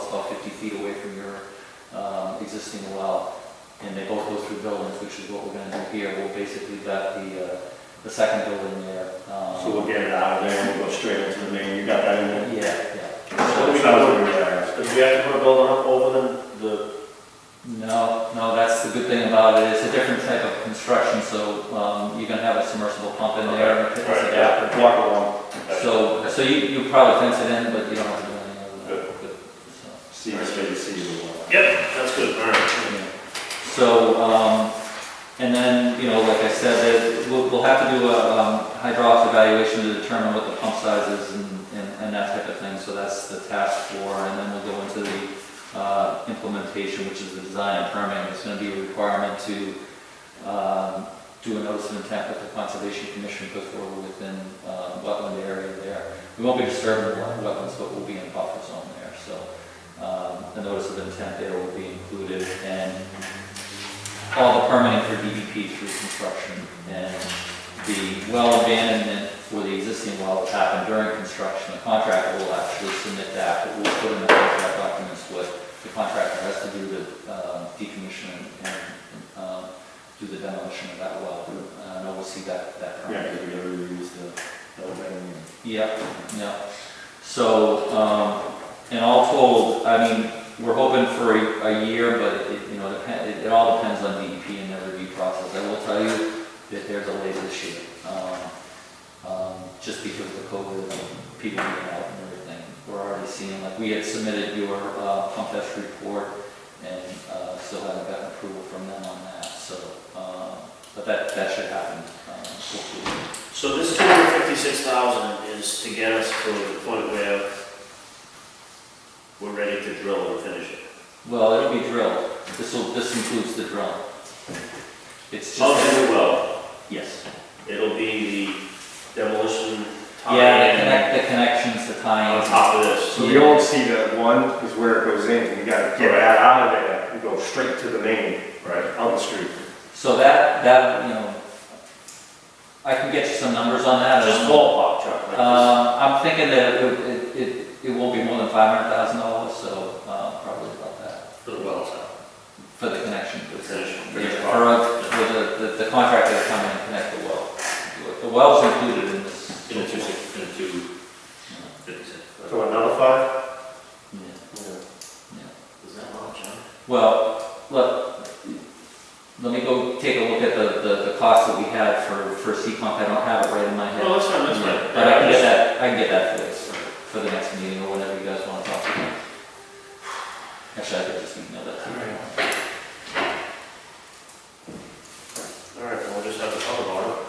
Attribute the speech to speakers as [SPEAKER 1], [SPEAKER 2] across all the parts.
[SPEAKER 1] 50 feet away from your um, existing well, and they both go through buildings, which is what we're gonna do here. We'll basically vet the, uh, the second building there. um,
[SPEAKER 2] So we'll get it out of there and we'll go straight into the main, you got that in there?
[SPEAKER 1] Yeah, yeah.
[SPEAKER 2] So we know, if we have to put a building up over the, the,
[SPEAKER 1] No, no, that's the good thing about it, it's a different type of construction, so um, you're gonna have a submersible pump in there and a fitness
[SPEAKER 2] right,
[SPEAKER 1] adapter.
[SPEAKER 2] yeah, block along.
[SPEAKER 1] So, so you, you probably fence it in, but you don't have to do any of that. Good. So,
[SPEAKER 2] See, it's ready to see the one.
[SPEAKER 3] Yep, that's good, all right.
[SPEAKER 1] yeah. So, um, and then, you know, like I said, that we'll, we'll have to do a um, hydraulics evaluation to determine what the pump size is and, and and that type of thing, so that's the task for, and then we'll go into the, uh, implementation, which is the design and permitting, it's gonna be a requirement to, um, do a notice of intent with the conservation commission before we're within, uh, wetland area there. We won't be disturbing wet- wetlands, but we'll be in buffer zone there, so, um, the notice of intent there will be included, and all the permitting for DEP through construction, and the well abandonment for the existing well will happen during construction. The contractor will actually submit that, but we'll put in the contract documents what the contractor has to do to um, decommission and um, do the demolition of that well. Uh, And we'll see that, that permit.
[SPEAKER 2] Yeah, because we already used the, the opening.
[SPEAKER 1] Yep, yeah. So, um, and all told, I mean, we're hoping for a, a year, but it, you know, depend, it, it all depends on DEP and their review process. I will tell you that they're delayed this year, um, um, just because of the COVID, and people being out and everything. We're already seeing, like, we had submitted your, uh, pump test report and, uh, still haven't gotten approval from them on that, so, um, but that, that should happen, um, hopefully.
[SPEAKER 3] So this two hundred fifty-six thousand is to get us to the point where we're ready to drill and finish it.
[SPEAKER 1] Well, it'll be drilled. This will, this includes the drill. It's
[SPEAKER 3] Of
[SPEAKER 1] just,
[SPEAKER 3] the well,
[SPEAKER 1] yes.
[SPEAKER 3] it'll be the demolition Oh,
[SPEAKER 1] Yeah, the
[SPEAKER 3] tie
[SPEAKER 1] connect, the connections, the
[SPEAKER 3] on
[SPEAKER 1] tie-ins.
[SPEAKER 3] top of this.
[SPEAKER 2] So we don't see that one is where it goes in, we gotta get that out of there, we go straight to the main,
[SPEAKER 3] Right.
[SPEAKER 2] on the street.
[SPEAKER 1] So that, that, you know, I can get you some numbers on that.
[SPEAKER 3] Just ballpark, Chuck, like this.
[SPEAKER 1] Um, I'm thinking that it, would- it, it, it won't be more than five hundred thousand dollars, so, uh, probably about that,
[SPEAKER 3] for the well side.
[SPEAKER 1] for the connection.
[SPEAKER 3] The finish- finish
[SPEAKER 1] Yeah,
[SPEAKER 3] part.
[SPEAKER 1] for, uh, for the, the- the contractor to come in and connect the well. The well's included in this.
[SPEAKER 3] In the two six, in the two fifty-six.
[SPEAKER 2] So another five?
[SPEAKER 1] Yeah, yeah.
[SPEAKER 3] Is that much, huh?
[SPEAKER 1] Well, look, let me go take a look at the, the, the cost that we had for, for C-Pump, I don't have it right in my head.
[SPEAKER 3] No, that's fine, Oh, that's fine.
[SPEAKER 1] But I can get that, I can get that for this, for the next meeting, or whenever you guys wanna talk about it. Actually, I could just email that to you.
[SPEAKER 3] All right, well, we'll just have to talk about it.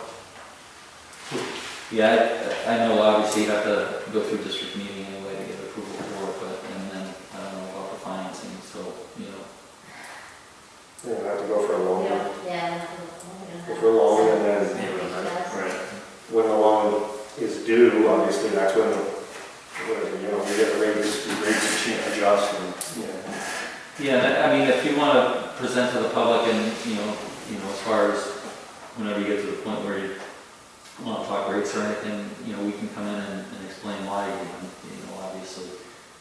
[SPEAKER 1] Yeah, I, I know obviously you have to go through district meeting anyway to get approval for it, but, and then, I don't know about the financing, so, you know,
[SPEAKER 2] Yeah, we'll have to go for a long one.
[SPEAKER 4] Yeah.
[SPEAKER 2] If we're long and then
[SPEAKER 3] Right.
[SPEAKER 2] when the loan is due, obviously, that's when, the- when, you know, we get the rates, the rates change, adjust and, you know.
[SPEAKER 1] Yeah, that- I mean, if you want to present to the public and, you know, you know, as far as whenever you get to the point where you want to talk rates or anything, you know, we can come in and and explain why, you know, you know, obviously,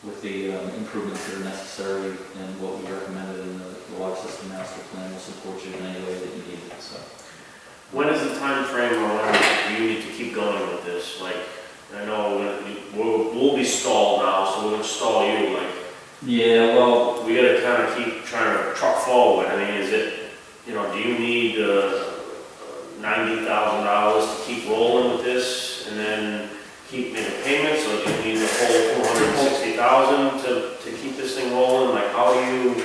[SPEAKER 1] with the um, improvements that are necessary and what we recommended in the the water system master plan will support you in any way that you need it, so.
[SPEAKER 3] When is the time frame or when do you need to keep going with this? Like, I know we- we'll, we'll be stalled now, so we're gonna stall you, like,
[SPEAKER 1] Yeah, well,
[SPEAKER 3] we gotta kinda keep trying to truck forward. I mean, is it, you know, do you need, uh, ninety thousand dollars to keep rolling with this and then keep making payments? Or do you need the whole four hundred and sixty thousand to, to keep this thing rolling? Like, how do you?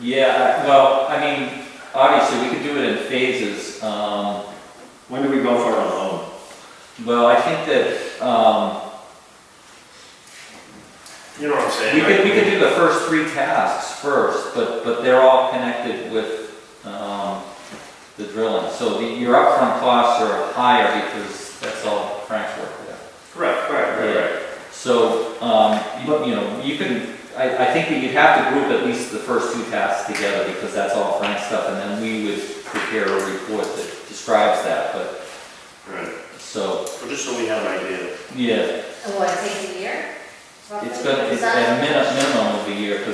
[SPEAKER 1] yeah, I- well, I mean, obviously, we could do it in phases. um,
[SPEAKER 2] When do we go for a loan?
[SPEAKER 1] Well, I think that, um,
[SPEAKER 3] You know what I'm saying?
[SPEAKER 1] We could,
[SPEAKER 3] right?
[SPEAKER 1] we could do the first three tasks first, but, but they're all connected with, um, the drilling. So the, your upfront costs are higher because that's all Frank's work there.
[SPEAKER 3] Correct, right, right, right.
[SPEAKER 1] So, um, you, you know, you can, I, I think that you'd have to group at least the first two tasks together because that's all Frank's stuff. And then we would prepare a report that describes that, but,
[SPEAKER 3] Right.
[SPEAKER 1] so,
[SPEAKER 3] Well, just so we have an idea.
[SPEAKER 1] yeah,
[SPEAKER 4] What, it Oh, takes a year?
[SPEAKER 1] it's gonna, it's a minimum of a year